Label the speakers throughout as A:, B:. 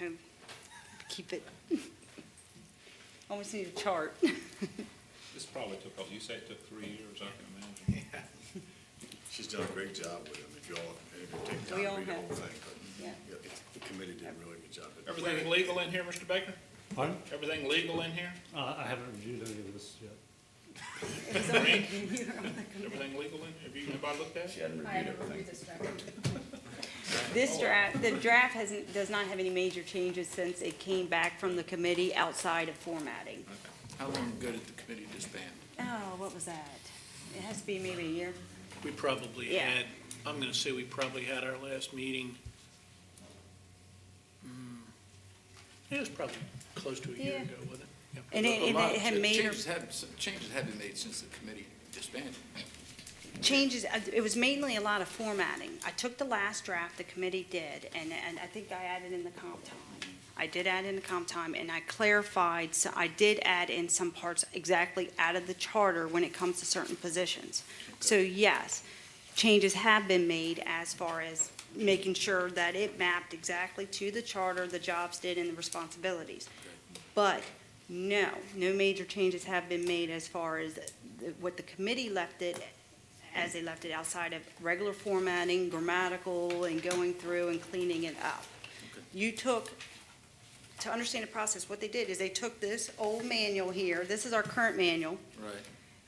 A: I Um, keep it, almost need a chart.
B: This probably took, oh, you say it took three years, I can imagine.
C: She's done a great job with them, if y'all, if you take time
A: We
C: to
A: all
C: read the
A: have.
C: whole thing. but
A: Yeah.
C: yeah, The committee did a really good job. at-
B: Everything legal in here, Mr. Baker?
D: Pardon?
B: Everything legal in here?
D: Uh, I haven't reviewed any of this yet.
A: It's on the computer, on the computer.
B: Everything legal in, have you, anybody looked at it?
E: I haven't reviewed this draft.
A: This draft, the draft hasn't, does not have any major changes since it came back from the committee outside of formatting.
F: How long ago did the committee disband?
A: Oh, what was that? It has to be maybe a year.
G: We probably
A: Yeah.
G: had, I'm gonna say we probably had our last meeting. mm, It was probably close to a year
A: Yeah.
G: ago, wasn't it? Yep.
A: And it,
F: A
A: and
F: lot
A: it
F: of
A: had
F: cha-
A: major
F: Changes had, some changes had been made since the committee disbanded.
A: changes, uh, it was mainly a lot of formatting. I took the last draft the committee did, and, and I think I added in the comp time. I did add in the comp time, and I clarified, so I did add in some parts exactly out of the charter when it comes to certain positions. So yes, changes have been made as far as making sure that it mapped exactly to the charter, the jobs did, and the responsibilities. But, no, no major changes have been made as far as the- what the committee left it as they left it outside of regular formatting, grammatical, and going through and cleaning it up. You took, to understand the process, what they did is they took this old manual here, this is our current manual,
F: Right.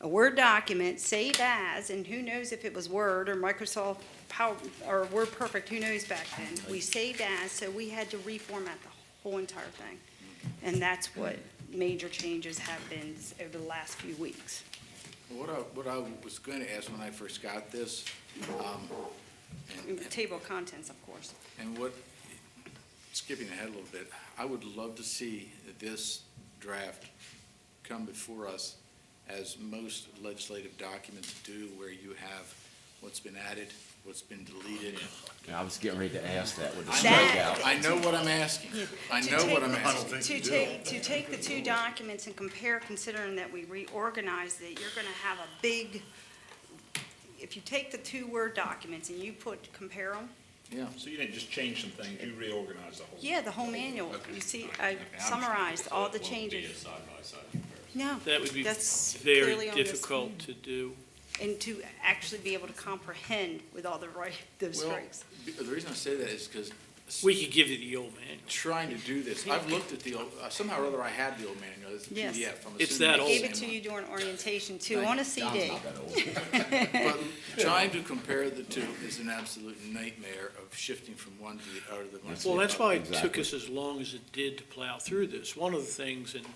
A: a Word document, save as, and who knows if it was Word or Microsoft Power, or WordPerfect, who knows back then? We saved as, so we had to reformat the whole entire thing. And that's what major changes have been over the last few weeks.
F: What I, what I was going to ask when I first got this, um, and-
A: Table of contents, of course.
F: and what, skipping ahead a little bit, I would love to see this draft come before us as most legislative documents do, where you have what's been added, what's been deleted.
H: I was getting ready to ask that with the
F: I
A: That-
F: know- I know what I'm asking. I
A: To
F: know what
A: take-
F: I'm asking.
A: To take, to take the two documents and compare, considering that we reorganized it, you're gonna have a big, if you take the two Word documents and you put, compare them,
F: Yeah.
B: So you didn't just change some things, you reorganized the whole?
A: yeah, the whole manual,
B: Okay.
A: you see, I
B: Okay, I'm-
A: summarized all the
B: So it won't be
A: changes.
B: a side-by-side comparison.
A: No,
G: That would be
A: that's clearly
G: very
A: on this.
G: difficult to do.
A: And to actually be able to comprehend with all the right, those
F: Well,
A: strikes.
F: b- the reason I say that is because
G: We could give you the old manual.
F: trying to do this, I've looked at the, old uh, somehow or other I had the old manual, it's a
A: Yes.
F: PDF. I'm
G: It's
F: assuming
G: that
F: the
G: old.
A: Gave
F: same
A: it to
F: one.
A: you during orientation too,
F: Thank
A: on a
F: you.
A: CD.
F: But trying to compare the two is an absolute nightmare of shifting from one to the other. than one to
G: Well,
F: the
G: that's
F: other.
G: why it took us as long as it did to plow through this. One of the things, and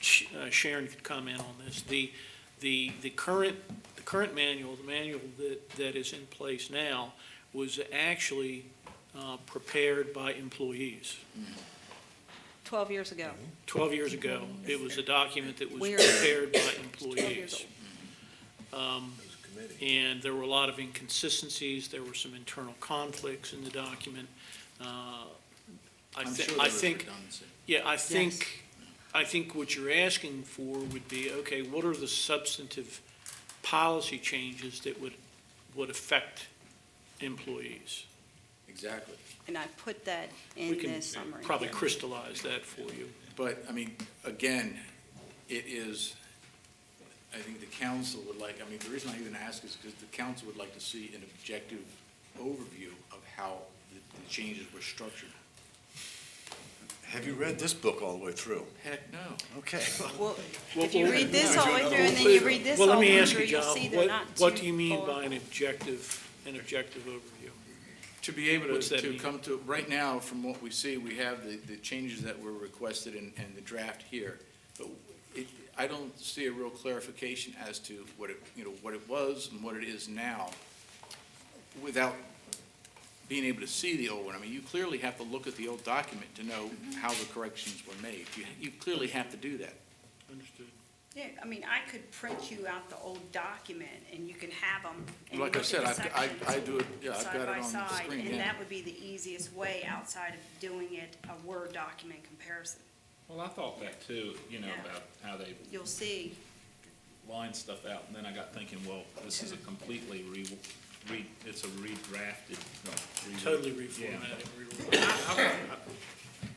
G: Sh- uh, Sharon could comment on this, the, the, the current, the current manual, the manual that, that is in place now, was actually uh, prepared by employees.
A: Twelve years ago.
F: Mm-hmm.
G: 12 years ago, it was a document that was
A: We are-
G: prepared by
A: 12 years
G: employees. Um, And there were a lot of inconsistencies, there were some internal conflicts in the document. Uh, I
F: I'm
G: thi-
F: sure there
G: I
F: was
G: think,
F: redundancy.
G: yeah, I
A: Yes.
G: think, I think what you're asking for would be, okay, what are the substantive policy changes that would, would affect employees?
F: Exactly.
A: And I put that
G: We
A: in
G: can
A: this summary.
G: Probably crystallize that for you.
F: But, I mean, again, it is, I think the council would like, I mean, the reason I even ask is because the council would like to see an objective overview of how the the changes were structured.
C: Have you read this book all the way through?
F: Heck, no.
C: Okay.
A: Well, if you read this all the way
C: Well,
A: through and then you read this all
G: Well,
A: the
G: let me
A: way
G: ask
A: through,
G: you,
A: you'll
G: John,
A: see they're
G: what,
A: not too
G: what do you mean
A: far.
G: by an objective, an objective overview?
F: To be able to,
G: What's that
F: to
G: mean?
F: come to, right now, from what we see, we have the, the changes that were requested and, and the draft here. But it, I don't see a real clarification as to what it, you know, what it was and what it is now without being able to see the old one. I mean, you clearly have to look at the old document to know how the corrections were made. You, you clearly have to do that.
G: Understood.
A: Yeah, I mean, I could print you out the old document and you can have them. and
F: Like
A: look
F: I
A: at
F: said,
A: the
F: I've g- I-
A: sections
F: I do it- yeah, I've got it on the
A: Side by side,
F: screen,
A: and
F: yeah.
A: that would be the easiest way outside of doing it a Word document comparison.
B: Well, I thought that too, you know,
A: Yeah.
B: about how they
A: You'll see,
B: line stuff out, and then I got thinking, well, this is a completely re, re, it's a redrafted. no, re-
G: Totally
B: Yeah.
G: reformatted.
B: I- I- I-